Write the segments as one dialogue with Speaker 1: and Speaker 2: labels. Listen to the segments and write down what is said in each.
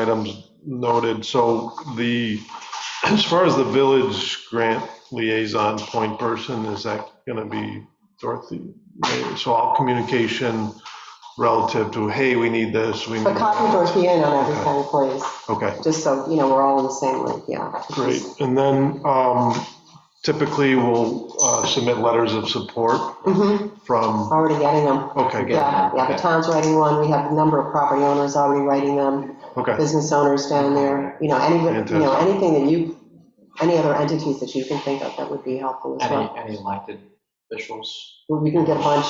Speaker 1: items noted. So the, as far as the village grant liaison point person, is that going to be Dorothy? So all communication relative to, hey, we need this, we need.
Speaker 2: But copy Dorothea in on everything, please,
Speaker 1: Okay,
Speaker 2: just so, you know, we're all in the same link, yeah.
Speaker 1: great. And then um, typically we'll uh, submit letters of support
Speaker 2: hmm
Speaker 1: from,
Speaker 2: already getting them.
Speaker 1: okay, good,
Speaker 2: Yeah, yeah, the town's writing one, we have a number of property owners already writing them,
Speaker 1: okay,
Speaker 2: business owners down there, you know, any, you know,
Speaker 1: Fantastic.
Speaker 2: anything that you, any other entities that you can think of that would be helpful as
Speaker 3: Any,
Speaker 2: well.
Speaker 3: any elected officials,
Speaker 2: We can get a bunch,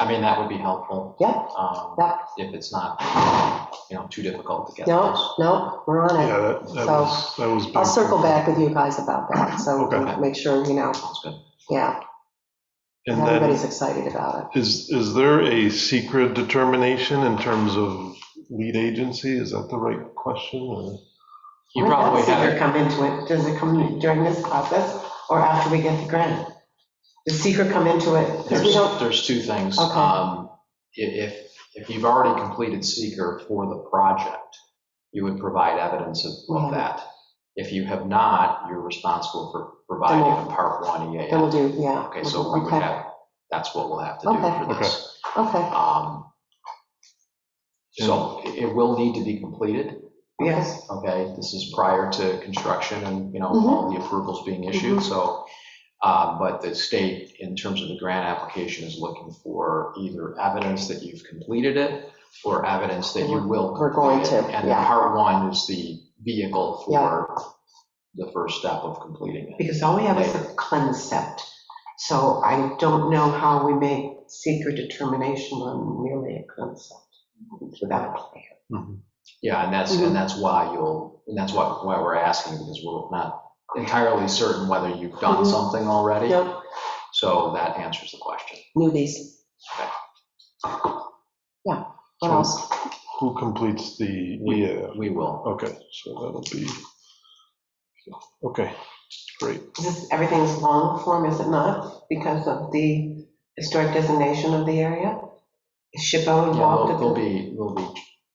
Speaker 3: I mean, that would be helpful.
Speaker 2: yeah,
Speaker 3: um,
Speaker 2: yeah,
Speaker 3: If it's not, you know, too difficult to get those.
Speaker 2: no, no, we're on
Speaker 1: yeah,
Speaker 2: it.
Speaker 1: that that
Speaker 2: So,
Speaker 1: was, that was.
Speaker 2: I'll circle back with you guys about that, so we
Speaker 1: Okay.
Speaker 2: can make sure, you know,
Speaker 3: Sounds good.
Speaker 2: yeah,
Speaker 1: And then.
Speaker 2: everybody's excited about
Speaker 1: Is, is there a secret determination in terms of lead agency? Is that the right question? or-
Speaker 2: it.
Speaker 3: You probably
Speaker 4: Does it
Speaker 3: have,
Speaker 4: come into it, does it come in during this process or after we get the grant? Does secret come into it?
Speaker 2: we
Speaker 3: there's,
Speaker 2: don't-
Speaker 3: there's two things.
Speaker 2: Okay.
Speaker 3: Um, i- If, if you've already completed seeker for the project, you would provide evidence of,
Speaker 2: Yeah.
Speaker 3: of that. If you have not, you're responsible for providing
Speaker 2: Then we'll-
Speaker 3: a part one
Speaker 2: Then we'll
Speaker 3: EAF.
Speaker 2: do, yeah.
Speaker 3: Okay, so we would
Speaker 2: Okay,
Speaker 3: have, that's what we'll have to do
Speaker 2: Okay.
Speaker 3: for this.
Speaker 2: Okay.
Speaker 3: Um, So it it will need to be completed.
Speaker 4: Yes,
Speaker 3: okay? This is prior to construction and, you know,
Speaker 2: Mm-hmm.
Speaker 3: all the approvals being issued, so. uh, But the state, in terms of the grant application, is looking for either evidence that you've completed it or evidence that you will
Speaker 2: We're going
Speaker 3: complete it.
Speaker 2: to,
Speaker 3: And
Speaker 2: yeah.
Speaker 3: part one is the vehicle for the first step of completing it.
Speaker 4: because all we have is a concept. So I don't know how we make secret determination on merely a concept without a plan.
Speaker 3: Yeah, and that's, and that's why you'll, and that's why, why we're asking, because we're not entirely certain whether you've done
Speaker 2: Mhm.
Speaker 3: something already.
Speaker 2: Yep,
Speaker 3: So that answers the question.
Speaker 2: knew these. Yeah, what
Speaker 1: So-
Speaker 2: else?
Speaker 1: Who completes the,
Speaker 3: We-
Speaker 1: yeah,
Speaker 3: We will.
Speaker 1: okay, so that'll be, okay, great.
Speaker 4: This, everything's long form, is it not? Because of the historic designation of the area? Is SHPO
Speaker 3: Yeah,
Speaker 4: involved?
Speaker 3: there'll
Speaker 4: at
Speaker 3: there'll
Speaker 4: the-
Speaker 3: be, there'll be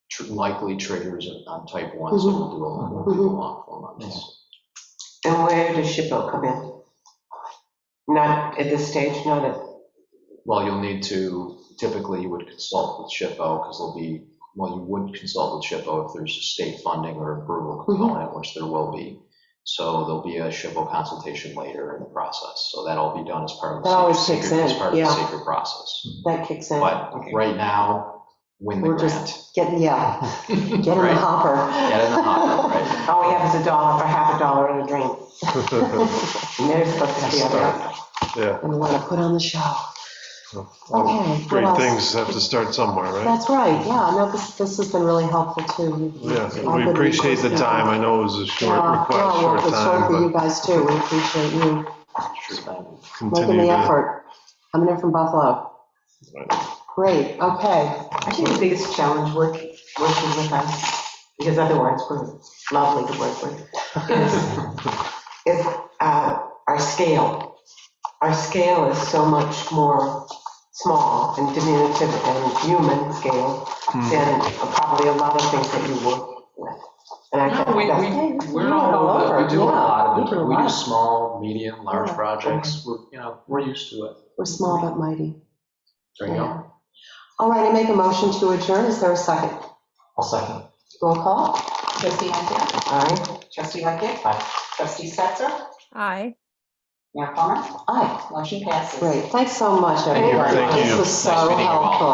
Speaker 3: tr- likely triggers on- on type one, so we'll do a long, we'll do a long form on this.
Speaker 4: And where does SHPO come in? Not at this stage, not at,
Speaker 3: Well, you'll need to, typically you would consult with SHPO, because there'll be, well, you would consult with SHPO if there's a state funding or approval
Speaker 2: Mm-hmm.
Speaker 3: component, which there will be. So there'll be a SHPO consultation later in the process, so that'll be done as part of
Speaker 2: That
Speaker 3: the
Speaker 2: always
Speaker 3: secret,
Speaker 2: kicks
Speaker 3: secret- as
Speaker 2: in,
Speaker 3: part of the
Speaker 2: yeah.
Speaker 3: secret process.
Speaker 2: That kicks in.
Speaker 3: But right now, win the
Speaker 2: We're
Speaker 3: grant.
Speaker 2: just getting, yeah, get in the
Speaker 3: Right.
Speaker 2: hopper.
Speaker 3: Get in the hopper, right?
Speaker 4: all we have is a dollar for half a dollar and a drink. And they're supposed to be out there.
Speaker 1: Yeah,
Speaker 2: And we want to put on the show.
Speaker 1: well,
Speaker 2: Okay. what
Speaker 1: great
Speaker 2: else?
Speaker 1: things have to start somewhere, right?
Speaker 2: That's right, yeah, no, this, this has been really helpful too.
Speaker 1: Yeah,
Speaker 2: All
Speaker 1: we
Speaker 2: good
Speaker 1: appreciate the
Speaker 2: resources.
Speaker 1: time. I know it was a short
Speaker 2: Yeah,
Speaker 1: request,
Speaker 2: yeah, well,
Speaker 1: short
Speaker 2: it's short for you
Speaker 1: time,
Speaker 2: guys too, we appreciate you
Speaker 3: Sure thing.
Speaker 1: but
Speaker 2: making
Speaker 1: continue
Speaker 2: the
Speaker 1: to.
Speaker 2: effort, coming in from Buffalo. Great, okay,
Speaker 4: I think the biggest challenge work- working with us, because otherwise we're lovely to work with, is, is uh, our scale. Our scale is so much more small and diminutive and human scale
Speaker 2: Hmm.
Speaker 4: than probably a lot of things that you work with. And I
Speaker 3: No,
Speaker 4: think
Speaker 3: we,
Speaker 4: that's-
Speaker 3: we, we're
Speaker 2: Yeah,
Speaker 3: all
Speaker 2: all
Speaker 3: over,
Speaker 2: over,
Speaker 3: we do a
Speaker 2: yeah,
Speaker 3: lot
Speaker 2: we do
Speaker 3: of
Speaker 2: a
Speaker 3: different, we
Speaker 2: lot.
Speaker 3: do small, medium, large
Speaker 2: Yeah.
Speaker 3: projects, we're, you know, we're used to it.
Speaker 2: we're small but mighty.
Speaker 3: There you
Speaker 2: Yeah.
Speaker 3: go.
Speaker 2: All right, I make a motion to adjourn, is there a second?
Speaker 3: I'll second.
Speaker 2: Roll call?
Speaker 4: Trustee Lanfair? Aye. Trustee Lightkit? Aye. Trustee Stetser?
Speaker 5: Aye.
Speaker 4: Mayor Plummer?
Speaker 2: Aye,
Speaker 4: Motion passes.
Speaker 2: great, thanks so much,
Speaker 1: Thank you,
Speaker 2: everyone.
Speaker 1: thank you.
Speaker 2: This was
Speaker 3: Nice
Speaker 2: so
Speaker 3: meeting you all.
Speaker 2: helpful.